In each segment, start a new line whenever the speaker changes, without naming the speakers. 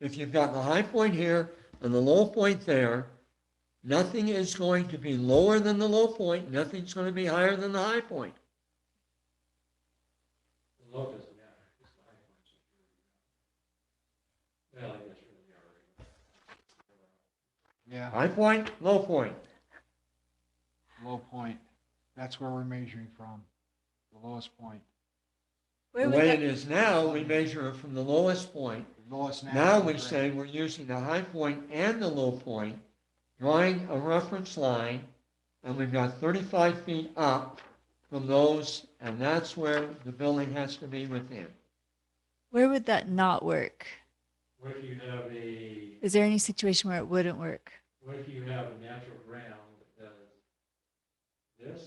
if you've got the high point here and the low point there, nothing is going to be lower than the low point, nothing's going to be higher than the high point.
The low doesn't matter, it's the high points. that really matter. Well, I guess really
Yeah,
are.
High point, low point.
low point. That's where we're measuring from, the lowest point.
The
Where was
way it
that?
is now, we measure it from the lowest point.
The lowest now.
Now we say we're using the high point and the low point, drawing a reference line, and we've got 35 feet up from those, and that's where the building has to be within.
Where would that not work?
What if you have a,
Is there any situation where it wouldn't work?
what if you have a natural ground that does this?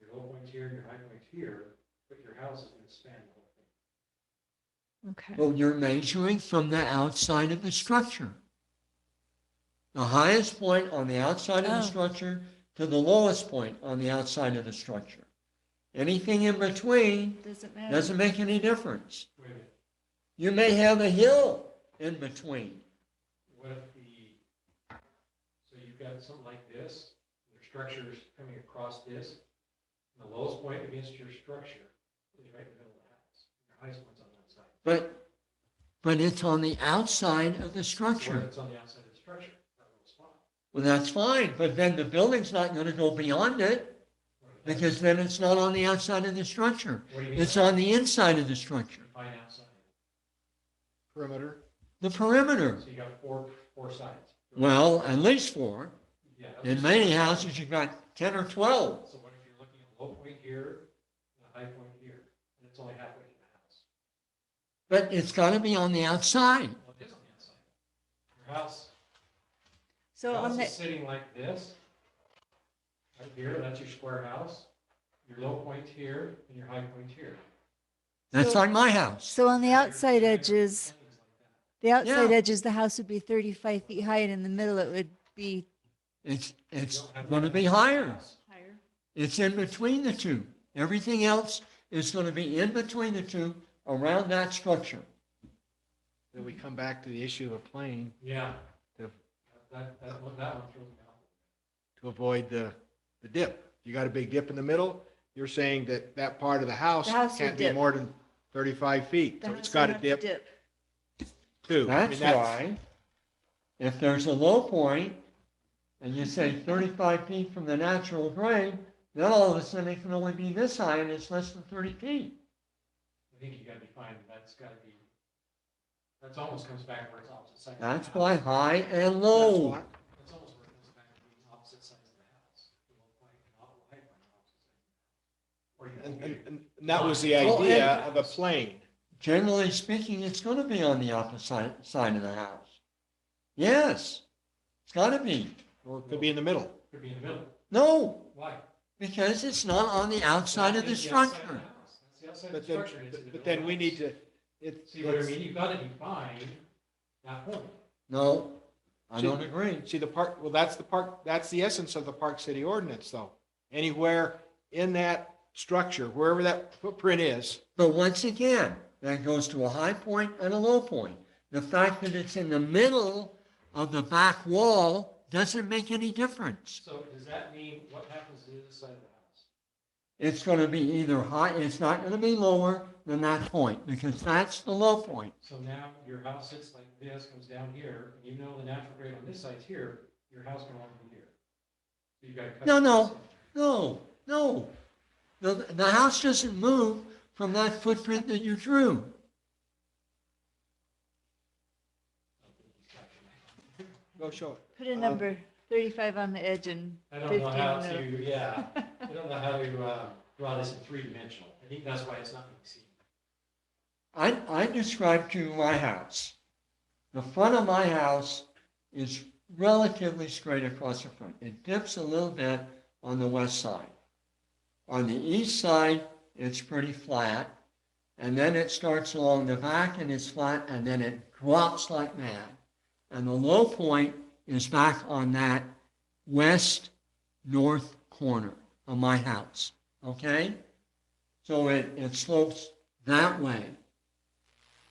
Your low point's here, your high point's here, but your house is gonna span the whole thing.
Okay.
Well, you're measuring from the outside of the structure. The highest point on the outside of the
Oh.
structure to the lowest point on the outside of the structure. Anything in between
Doesn't matter.
doesn't make any difference.
Wait a minute,
You may have a hill in between.
what if the, so you've got something like this, your structure's coming across this, and the lowest point against your structure is right in the middle of the house. Your highest one's on one side.
But, but it's on the outside of the
Or
structure.
it's on the outside of the structure, that little spot.
Well, that's fine, but then the building's not going to go beyond it
What if that's-
because then it's not on the outside of the structure.
What do you mean?
It's on the inside of the structure,
Define outside.
Perimeter.
the perimeter.
So you got four, four sides.
Well, at least four.
Yeah, that's
In
just-
many houses, you've got 10 or 12.
So what if you're looking at low point here, and a high point here, and it's only halfway to the house?
But it's got to be on the outside.
Well, it is on the outside. Your house,
so
house
on
is
the
sitting like this. Right here, that's your square house. Your low point here and your high point here.
That's
So-
like my house.
so on the
Your
outside
triangle
edges,
things like that.
the outside
Yeah.
edges, the house would be 35 feet high, and in the middle, it would be
It's,
You
it's
don't have
going to
that
be
much
higher.
house.
higher.
It's in between the two. Everything else is going to be in between the two around that structure.
Then we come back to the issue of a plane
Yeah.
to,
That, that, one- that one throws me off.
to avoid the, the dip. You got a big dip in the middle. You're saying that that part of the house
The house would
can't be
dip.
more than 35 feet.
The
So
house
it's
would
got to
have
dip too. I mean,
That's why, if there's a low point, and you say 35 feet from the natural grade, then all of a sudden it can only be this high, and it's less than 30 feet.
I think you gotta define, that's gotta be, that's almost comes back where it's opposite side. of the
That's
house.
why high and
That's
Oh.
low.
why-
That's almost where it comes back to being opposite sides of the house. The low point and the high point are opposite sides of the house. Or you
And,
can do-
and and that was the
Oh,
Well,
idea
and-
of a plane.
generally speaking, it's going to be on the opposite side of the house. Yes, it's got to be.
Or it could be in the middle.
could be in the middle.
No,
Why?
because it's not on the outside of the
That's outside of
structure.
the house. That's the outside of
But
the
then,
structure. It's in
but
the middle of
then
the
we need
house.
to, it's.
See what I mean? You gotta define that point.
No, I don't agree.
See, the park, well, that's the park, that's the essence of the Park City ordinance, though. Anywhere in that structure, wherever that footprint is,
But once again, that goes to a high point and a low point. The fact that it's in the middle of the back wall doesn't make any difference.
So does that mean what happens to the other side of the house?
It's going to be either high, it's not going to be lower than that point because that's the low point.
So now your house sits like this, comes down here, and you know the natural grade on this side's here, your house can only be here. So you gotta cut.
No, no. No, no. The, the house doesn't move from that footprint that you drew.
go show it.
Put a
Um,
number 35 on the edge and
I
15
don't know how
on the
to, yeah, I don't know how to, uh, draw this in three dimensional. I think that's why it's not being seen.
I, I described to you my house. The front of my house is relatively straight across the front. It dips a little bit on the west side. On the east side, it's pretty flat. And then it starts along the back and it's flat and then it drops like that. And the low point is back on that west north corner of my house. Okay? So it, it slopes that way.